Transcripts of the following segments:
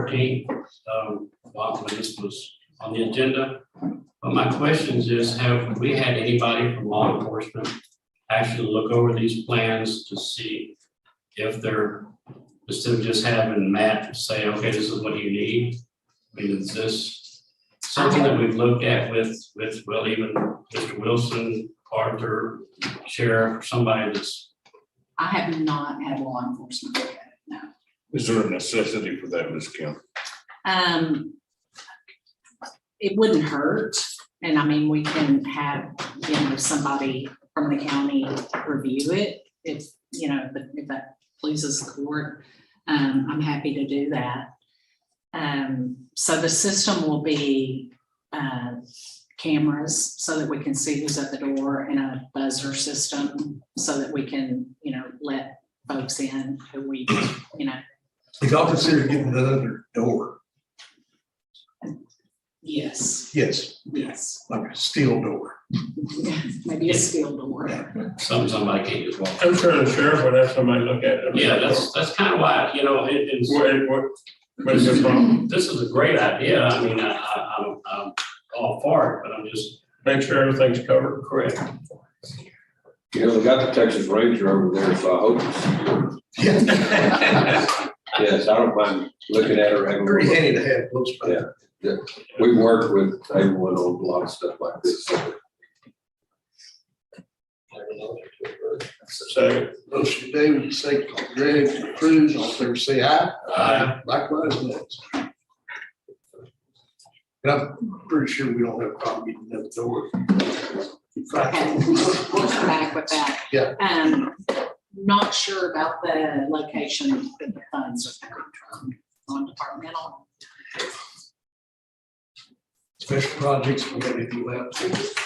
thirteen, um, Bob, when this was on the agenda. But my questions is, have we had anybody from law enforcement actually look over these plans to see if they're, instead of just having Matt say, okay, this is what you need? I mean, is this something that we've looked at with, with, well, even Mr. Wilson, Arthur, Sheriff, somebody that's I have not had law enforcement look at it, no. Is there a necessity for that, Ms. Kim? Um, it wouldn't hurt, and I mean, we can have, you know, somebody from the county review it. If, you know, but if that pleases the court, um, I'm happy to do that. Um, so the system will be, uh, cameras so that we can see who's at the door and a buzzer system so that we can, you know, let folks in who we, you know, If y'all consider getting another door, yes, yes, yes. like a steel door. Maybe a skilled award. some, somebody can't just walk. I'm sure the sheriff would have somebody look at it. Yeah, that's, that's kind of why, you know, it, it's. What, what, what's the problem? This is a great idea. I mean, I, I, I'm, I'm all for it, but I'm just. Make sure everything's covered. Correct. You know, they got the Texas Ranger over there, so I hope it's secure. Yes, I don't mind looking at her. having a Pretty look. handy to have, looks like. Yeah. We work with everyone on a lot of stuff like this. so Second, Motion David, second by Greg, to approve, all in favor say aye. Aye. Likewise, next. And I'm pretty sure we don't have a problem getting another door. Okay, we'll come back with that. Yeah. Um, not sure about the location of the funds are coming from, on departmental. Special projects, we got anything left?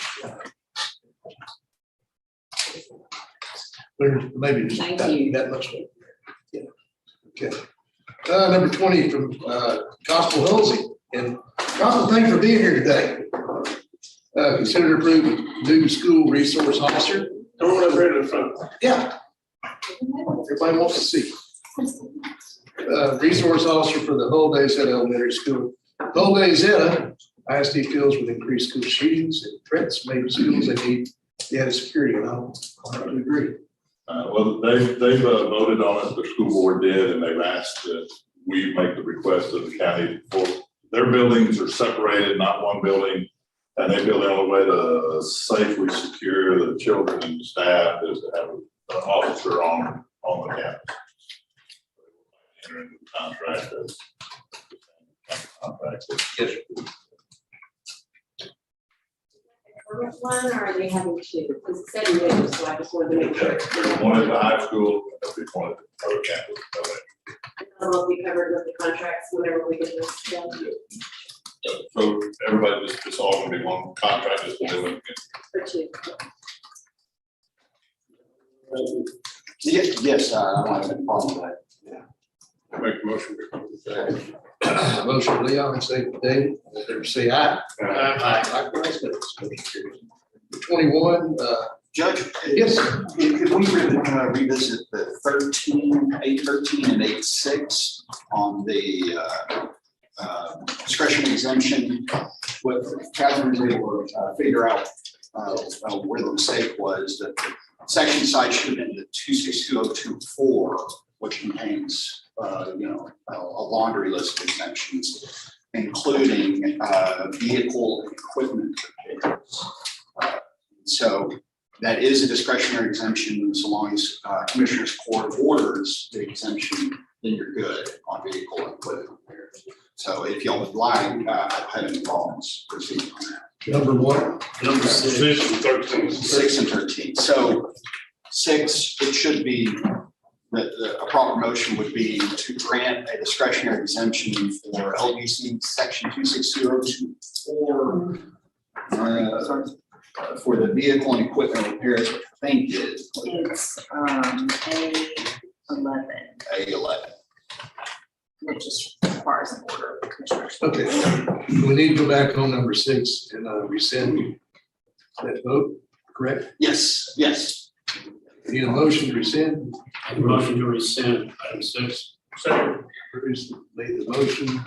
There's maybe just Thank that, you. that much. more. Yeah. Okay. Uh, number twenty from, uh, Gospel Halsey, and Gospel, thanks for being here today. Uh, consider approving new school resource officer. come on over here to the front. Yeah. Everybody wants to see. Uh, resource officer for the whole days at elementary school. Whole days at ISD deals with increased school shootings and threats made to schools that need the added security, and I would agree. Uh, well, they've, they've uh, voted on it, the school board did, and they've asked that we make the request of the county for, their buildings are separated, not one building. And they build out a way to safely secure the children and staff is to have an officer on, on the campus. Enter into the Contract as. Contract as- current one, or are they having two? Because it said new, so I just wanted to make sure. There's one at the high school, and there'll be one at the other campus. I'll be covered with the contracts whenever we get this done. So everybody, just, just all gonna be one contract, just one. for two. Yes, yes, I I don't have any problem with Make a motion. Motion Leon, second David, all in favor say aye. Aye. Likewise, that's motion carries. Twenty-one, uh, that. Judge, yes, if, if we re- uh, revisit the thirteen, eight thirteen and eight six on the uh, uh, discretion exemption, what Catherine was able to uh, figure out uh, uh, where the mistake was, that the section side should have been the two six two oh two four, which contains, uh, you know, a a laundry list of exemptions, including uh, vehicle and equipment. Uh, So that is a discretionary exemption, so long as uh, Commissioner's Court orders the exemption, then you're good on vehicle and equipment repair. So if y'all would like, uh, I've had any problems proceeding on that. number one, Number six. Position thirteen. Six and thirteen, so six, it should be, that the- a proper motion would be to grant a discretionary exemption for LUC section two six zero two four. uh, For the vehicle and equipment repairs, which I think is It's, um, A eleven, A eleven. which just requires an order of commissioners. okay. We need to go back on number six and, uh, rescind that vote, correct? Yes, yes. Need a motion to rescind, Motion to rescind item six. Second. Bruce made the motion,